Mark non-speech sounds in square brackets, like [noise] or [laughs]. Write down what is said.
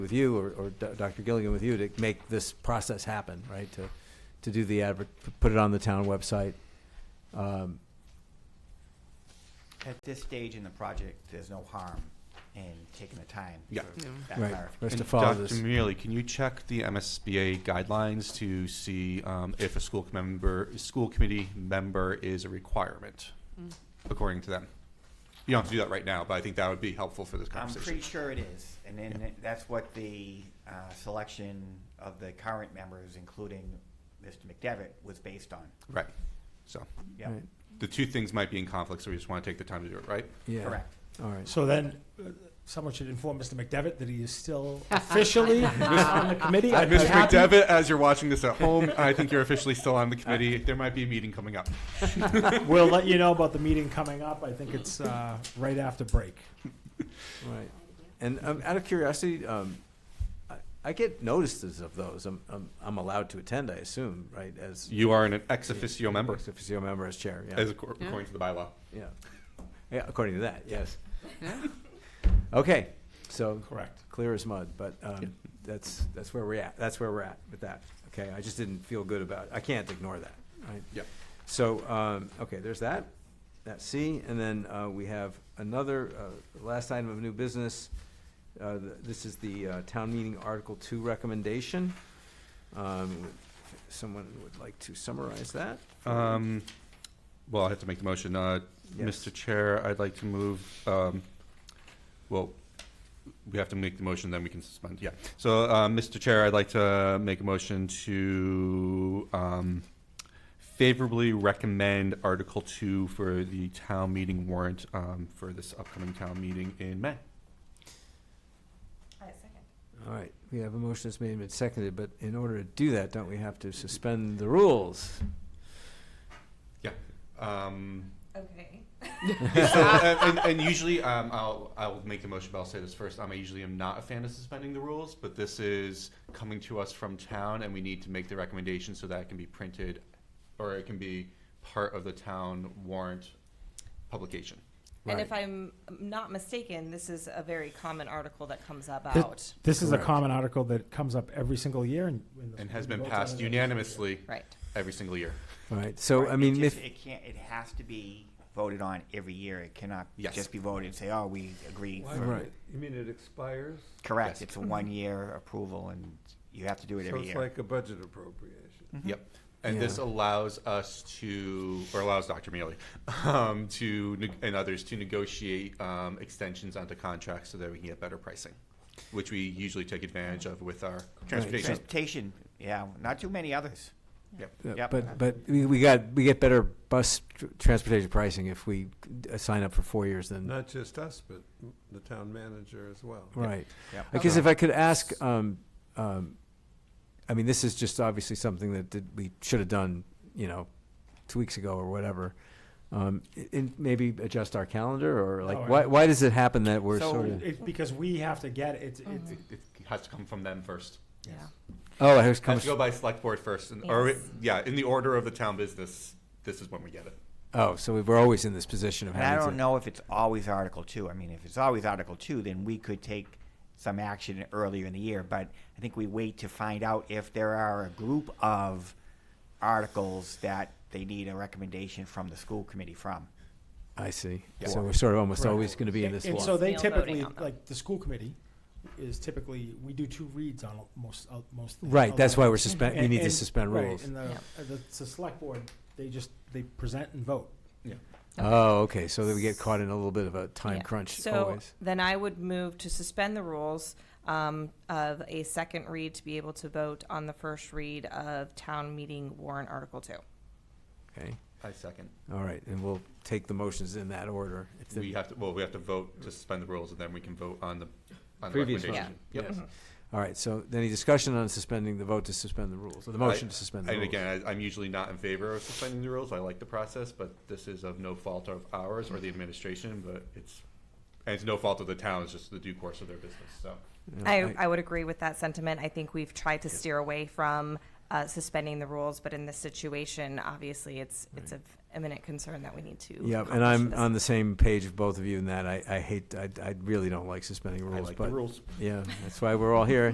with you or, or Do- Dr. Gilligan with you to make this process happen, right? To, to do the advert, put it on the town website. Um, At this stage in the project, there's no harm in taking the time Yeah. for Yeah. that Right. clarification. Rest And to follow Dr. this. Mealy, can you check the MSBA guidelines to see um, if a school member, school committee member is a requirement according to them? You don't have to do that right now, but I think that would be helpful for this I'm conversation. pretty sure it is, and then that's what the uh, selection of the current members, including Mr. McDevitt, was based on. Right. So Yeah, right, the two things might be in conflict, so we just want to take the time to do it right. Yeah. correct. All right. So then, uh, someone should inform Mr. McDevitt that he is [laughs] still officially Uh, on the committee. I'd be Mr. happy- Uh, McDevitt, as you're watching this at home, I think you're officially still on the committee. There might be a meeting coming up. We'll let you know about the meeting coming up. I think it's uh, right after break. Right. And um, out of curiosity, um, I, I get notices of those. I'm, I'm, I'm allowed to attend, I assume, right? As You are an ex officio member, Ex officio member as chair, yeah. as accor- according to the bylaw. Yeah. Yeah, according to that, yes. Yeah. Okay, so Correct. clear as mud, but um, that's, that's where we're at, that's where we're at with that, okay? I just didn't feel good about, it. I can't ignore that, right? Yep. So, um, okay, there's that, that's C, and then uh, we have another, uh, last item of new business. Uh, th- This is the uh, town meeting Article Two recommendation. Um, would- Someone would like to summarize that? Um, well, I have to make the motion. Uh, Yes. Mr. Chair, I'd like to move, um, well, we have to make the motion, then we can suspend, yeah. So, uh, Mr. Chair, I'd like to make a motion to, um, favorably recommend Article Two for the town meeting warrant, um, for this upcoming town meeting in May. All right, we have a motion that's made and been seconded, but in order to do that, don't we have to suspend the rules? Um, Okay. so, uh, and, and- and usually, um, I'll I'll make the motion, but I'll say this first. Um, I usually am not a fan of suspending the rules, but this is coming to us from town, and we need to make the recommendation so that it can be printed, or it can be part of the town warrant publication. And if Right. I'm not mistaken, this is a very common article that comes about, This is a Correct. common article that comes up every single year and. And has been passed unanimously right? every single year. All right, so, I It mean, just- if, It can't, it has to be voted on every year. It cannot Yes. just be voted and say, oh, we agree. for-" right, You mean it expires? Correct, Yes. it's a one-year approval, and you have to do it So every it's year. like a budget appropriation. Yep. And this Mm-hmm. Yeah. allows us to, or allows Dr. Mealy um, to neg- and others to negotiate um, extensions onto contracts so that we can get better pricing, which we usually take advantage of with our transportation. Transportation, yeah, not too many others. uh, Yep. but, but we we got, we get better bus tr- transportation pricing if we uh, sign up for four years than, Not just us, but the town manager as well. right. Yep. I guess if I could ask, um, um, I mean, this is just obviously something that did, we should have done, you know, two weeks ago or whatever. Um, i- in maybe adjust our calendar or like, Oh, why, yeah. why does it happen that we're So sort of? it's because we have to get it. It's- it's- It, it Mm-hmm. has to come from them first. Yeah. Oh, it It has comes, to go by select board first, and, or Yes. yeah, in the order of the town business. This is when we get it. oh, so we- we're always in this position of And I having to. don't know if it's always Article Two. I mean, if it's always Article Two, then we could take some action earlier in the year, but I think we wait to find out if there are a group of articles that they need a recommendation from the school committee from. I see. Yeah. So we're sort of almost Correct. always going to be in this And law. so they Still voting typically, on them. like, the school committee is typically, we do two reads on most, uh, most. things. Right, that's why we're Although- suspend, we And- need to and- suspend right, rules. And the, uh, the, it's the select board, they just, they present and vote. Oh, okay, so that we get caught in a little bit of a time Yeah. crunch So always. then I would move to suspend the rules um, of a second read to be able to vote on the first read of town meeting warrant article two. Okay, I second. all right, and we'll take the motions in that order. if the- We have to. Well, we have to vote to suspend the rules, and then we can vote on the on the Previous recommendation. Yep. Mm-hmm. Yes. All right, so any discussion on suspending the vote to suspend the rules, or the motion to suspend the And rules? again, I, I'm usually not in favor of suspending the rules. I like the process, but this is of no fault of ours or the administration, but it's, and it's no fault of the town, it's just the due course of their business, so. You know, I, I would agree with that sentiment. I think we've tried to steer away from uh, suspending the rules, but in this situation, obviously, it's it's of imminent concern that we need to. Yeah, and accomplish I'm this. on the same page with both of you in that I, I hate, I, I really don't like suspending I rules, like the but, rules. yeah, that's why we're all here.